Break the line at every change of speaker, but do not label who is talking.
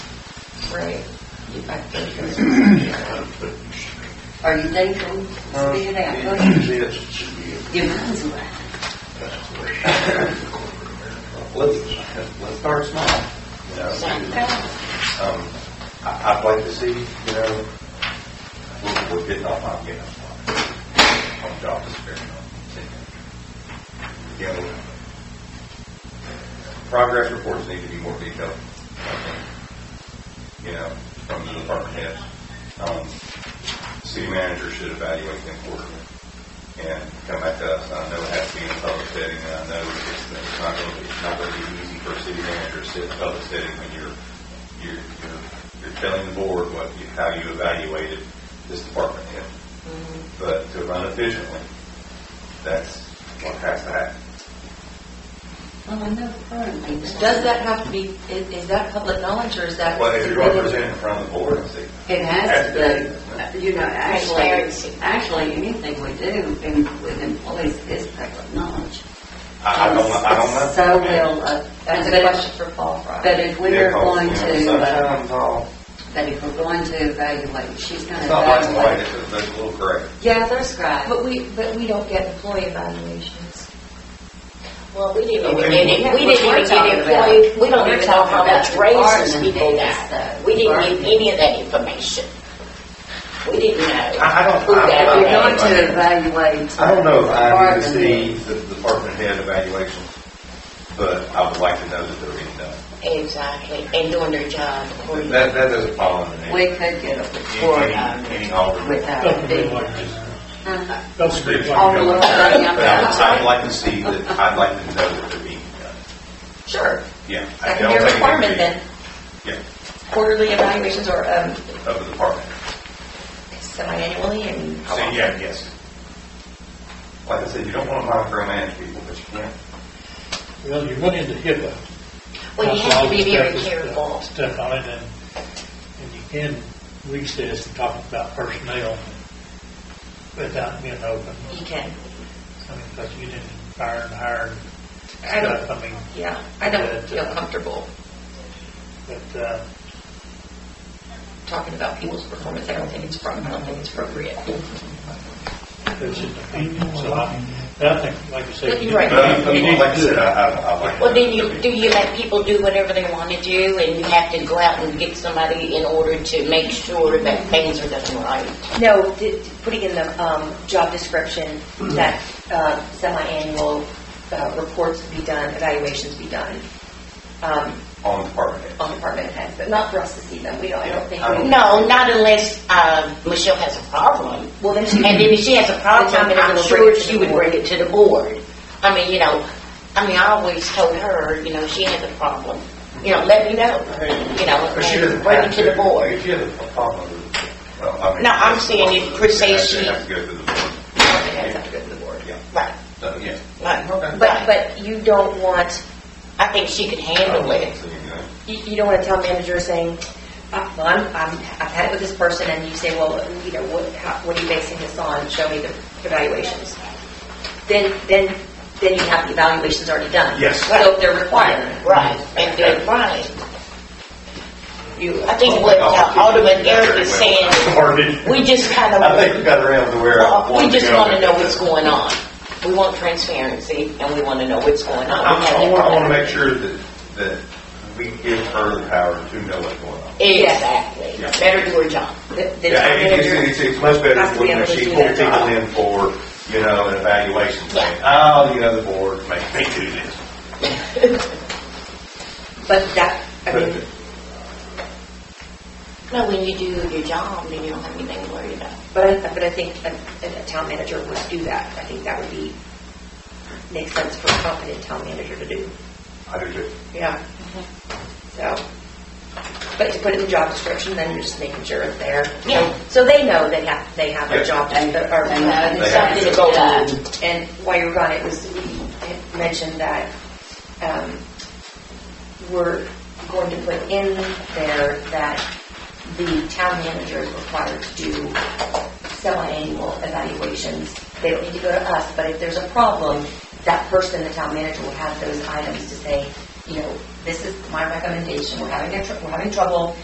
right? You back there, Chris? Are you thinking, speak it
Um,
out, go ahead.
Uh,
Give mine away.
Let's, let's start small. you know. Um, I- I'd like to see, you know, we're- we're getting off, I'm getting off my- on job description. You know, progress reports need to be more detailed, I think, you know, from the department heads. Um, City manager should evaluate them quarterly and come back to us. I know it has to be in a public setting, and I know it's it's not going to be, it's not going to be easy for a city manager to sit in a public setting when you're, you're, you're- you're telling the board what, you- how you evaluated this department head.
Mm-hmm.
But to run efficiently, that's what has to happen.
Well, I know currently. Does
Does that have to be, is is that public knowledge or is that?
Well, if you're going to present in front of the board and see,
It has to, you know, actually,
Transparency.
actually, anything we do in, with employees is public knowledge.
I, I don't, I don't know.
So will, uh,
That's a question for Paul Fry.
But if we're
Yeah, 'cause,
going
you know,
to, uh,
Sometimes I'll,
but if we're going to evaluate, she's going to
it's not black and white,
evaluate.
it's a- there's a little gray.
Yeah, there's right.
But we, but we don't get employee evaluations.
Well, we
Okay.
didn't even get it, we didn't even get employed,
We're
we don't even know how much
talking about
raises we
bargaining
did
days,
that.
though.
We didn't get
Bargaining.
any of that information. We didn't know.
I, I don't.
Who
I don't
that
know.
We're
Okay.
going to evaluate.
I don't know if I need to see
bargaining.
the department head evaluation, but I would like to know that they're being done.
Exactly, and doing their job accordingly.
That, that doesn't follow under me.
We could get a report
Any,
on
any
it
alderman.
without
Don't be
being.
like this.
Uh-huh.
Don't be
All the
like this.
little
But
thing I'm
I- I'd like to see that, I'd like to know that they're being done.
Sure,
Yeah. I
that can
don't
be a
think it
requirement
be-
then,
Yeah,
quarterly evaluations or um,
of the department.
semi-annually and.
So, yeah, yes. Like I said, you don't want to micromanage people, but you can.
Well, you went into HIPAA.
Well, you
That's
have to
all
be
the
very
stuff-
careful.
Stuff on it, and, and you can recess and talk about personnel without being open.
You can,
I mean, because you didn't fire and hire and
I don't-
stuff, I mean,
yeah, I don't feel comfortable
but, uh,
talking about people's performance, I don't think it's, pro- I don't think it's appropriate.
it's just opinion, so I, but I think, like you said.
But
you
you're right.
But, I-
need- you need
but
to
like I
do it.
said, I, I I like.
Well,
that
then you,
they're
do
being-
you let people do whatever they want to do, and you have to go out and get somebody in order to make sure that things are done right?
No, d- d- putting in the um, job description
Mm-hmm.
that uh, semi-annual uh, reports be done, evaluations be done um,
On the department head.
on department heads, but not for us to see them. We don't, I don't think,
I don't-
No, not unless, uh, Michelle has a problem.
well, then she
And then if she has a problem,
Then
I'm
we'll
sure
bring it to
she
the
would
board.
bring it to the board. I mean, you know, I mean, I always told her, you know, she has a problem, you know, let me know, you know,
But she
and
doesn't
bring it
have
to the board.
If she has a problem with it, well, I mean.
No, I'm saying if per se she-
It has to go to the board.
That's not good to the board.
Yeah,
Right,
so, yeah.
right.
But, but you don't want,
I think she could handle it.
So, you know,
you you don't want to tell manager saying, uh, well, I'm, I'm- I've had it with this person, and you say, well, you know, what, how- what are you basing this on? Show me the evaluations. Then, then, then you have the evaluations already done.
Yes.
So if they're required.
Right, and then, right.
You,
I think what uh, Alderman Eric is saying, we just kind of.
I think we got around to where I
We
wanted to
just
go.
want to know what's going on. We want transparency, and we want to know what's going on.
I
We have
want, I want to
that.
make sure that, that we give her the power to know what's going on.
Exactly.
Yeah.
Better do her job.
the- the
Yeah,
town
it- it's,
manager.
it's, it's much better
Has to be
when
able to
she
do
pulls
their job.
people in for, you know, an evaluation thing. Oh, you know, the board, make me do this.
But that, I
But-
mean,
No, when you do your job, then you don't have anything to worry about.
but I, but I think a, a town manager would do that. I think that would be, makes sense for a competent town manager to do.
I do too.
Yeah. So, but to put it in the job description, then you're just making sure it's there.
Yeah.
So they know they have, they have
Yeah.
a job, and, or,
And that
They
is
have
something
to go back.
And while you were gone, it was, we had mentioned that um, we're going to put in there that the town manager is required to do semi-annual evaluations. They don't need to go to us, but if there's a problem, that person, the town manager, will have those items to say, you know, this is my recommendation, we're having, a tr- we're having trouble,